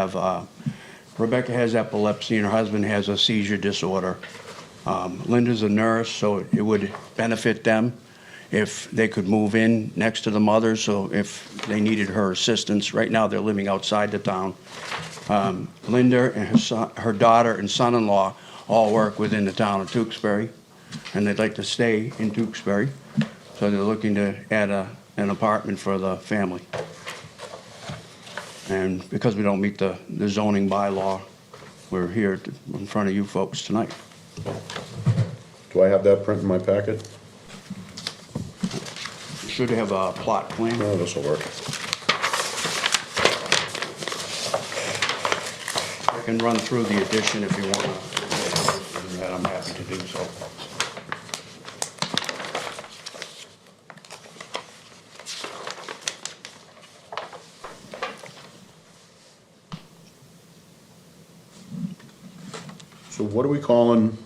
have, uh, Rebecca has epilepsy and her husband has a seizure disorder. Um, Linda's a nurse, so it would benefit them if they could move in next to the mother, so if they needed her assistance. Right now, they're living outside the town. Um, Linda and her son, her daughter and son-in-law all work within the town of Tewksbury, and they'd like to stay in Tewksbury. So they're looking to add a, an apartment for the family. And because we don't meet the, the zoning bylaw, we're here to- in front of you folks tonight. Do I have that print in my packet? Should have a plot plan. No, this'll work. I can run through the addition if you want to. That I'm happy to do so. So what are we calling?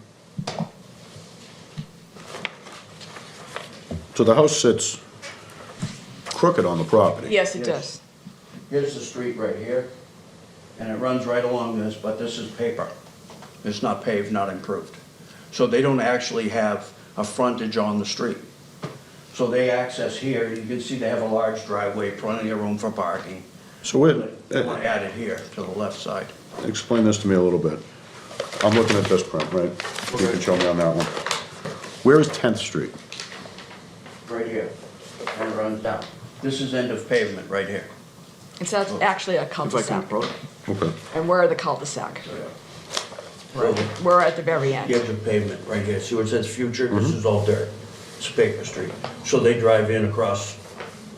So the house sits crooked on the property? Yes, Yes. it does. Here's the street right here, and it runs right along this, but this is paper. It's not paved, not improved. So they don't actually have a frontage on the street. So they access here, you can see they have a large driveway, plenty of room for parking. So wait, They want to eh, add it here to the left side. explain this to me a little bit. I'm looking at this print, right? You can show me on that one. Where is 10th Street? Right here, and it runs down. This is end of pavement, right here. It's act- actually a cul-de-sac. Okay. And we're the cul-de-sac. Right here. We're at the very The end. edge of pavement, right here, see where it says future, this Mm-hmm. is all dirt, it's paper street. So they drive in across,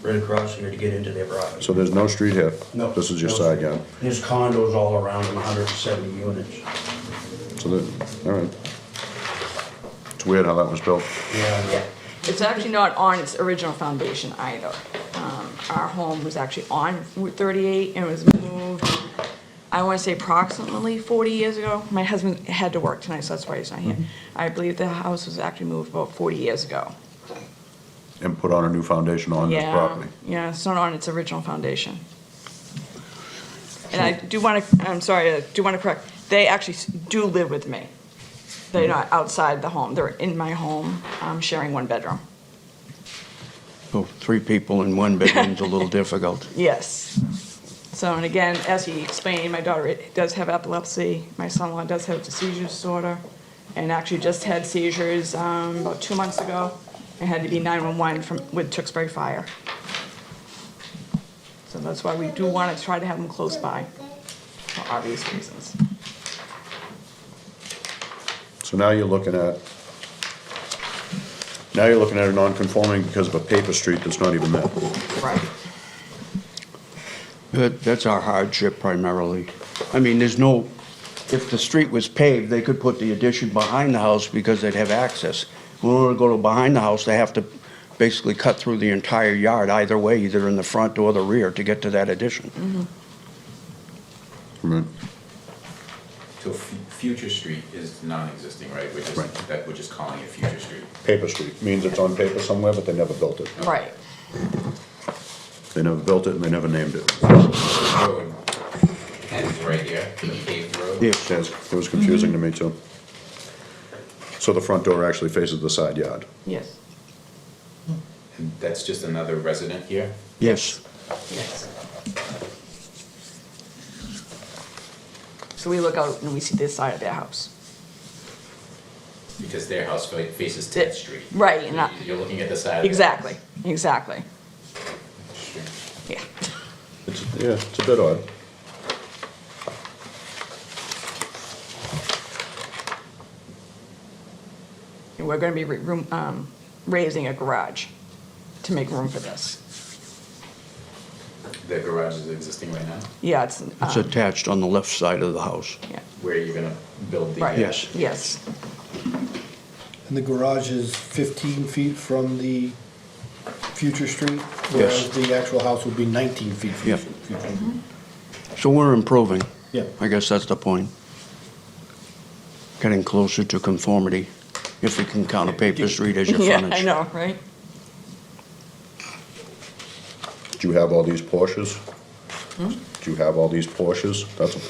right across here to get into their property. So there's no street here? No, This is your no. side yard? There's condos all around them, hundred and seventy units. So that, all right. It's weird how that was built. Yeah. It's actually not on its original foundation either. Um, Our home was actually on Route 38 and was moved, I want to say approximately 40 years ago. My husband had to work tonight, so that's why he's not here. I believe the house was actually moved about 40 years ago. And put on a new foundation on this Yeah, property. yeah, it's not on its original foundation. And I do want to, I'm sorry, I do want to correct, they actually s- do live with me. They're not outside the home, they're in my home, um, sharing one bedroom. So three people in one bedroom's a little difficult. Yes. So, and again, as he explained, my daughter it- does have epilepsy, my son-in-law does have a seizure disorder, and actually just had seizures um, about two months ago, and had to be 911 from, with Tewksbury Fire. So that's why we do want to try to have them close by, for obvious reasons. So now you're looking at, now you're looking at a non-conforming because of a paper street that's not even there. Right. That, that's our hardship primarily. I mean, there's no, if the street was paved, they could put the addition behind the house because they'd have access. In order to go to behind the house, they have to basically cut through the entire yard either way, either in the front or the rear to get to that Mm-hmm. addition. Right. So fu- Future Street is non-existing, right? We're Right. just, that, we're just calling it Future Street. Paper street means it's on paper somewhere, but they never built it. Right. They never built it and they never named it. The road ends right here, the paved road. Yeah. Yes, It was confusing to me too. So the front door actually faces the side yard. Yes. And that's just another resident here? Yes. Yes. So we look out and we see this side of their house. Because their house fa- faces 10th Street. Right, and I- You're looking at the side. of the- Exactly, exactly, Sure. yeah. It's, yeah, it's a bit odd. And we're gonna be re- room, um, raising a garage to make room for this. The garage is existing right now? Yeah, it's, It's um, attached on the left side of the house. yeah, Where you're gonna build the. right. Yes. Yes, And the garage is 15 feet from the future street? Yes. Whereas the actual house would be 19 feet from Yeah. the future street? So we're improving. Yeah. I guess that's the point. Getting closer to conformity, if we can count a paper street as your yeah, frontage. I know, right? Do you have all these Porsches? Do you have all these Porsches? That's a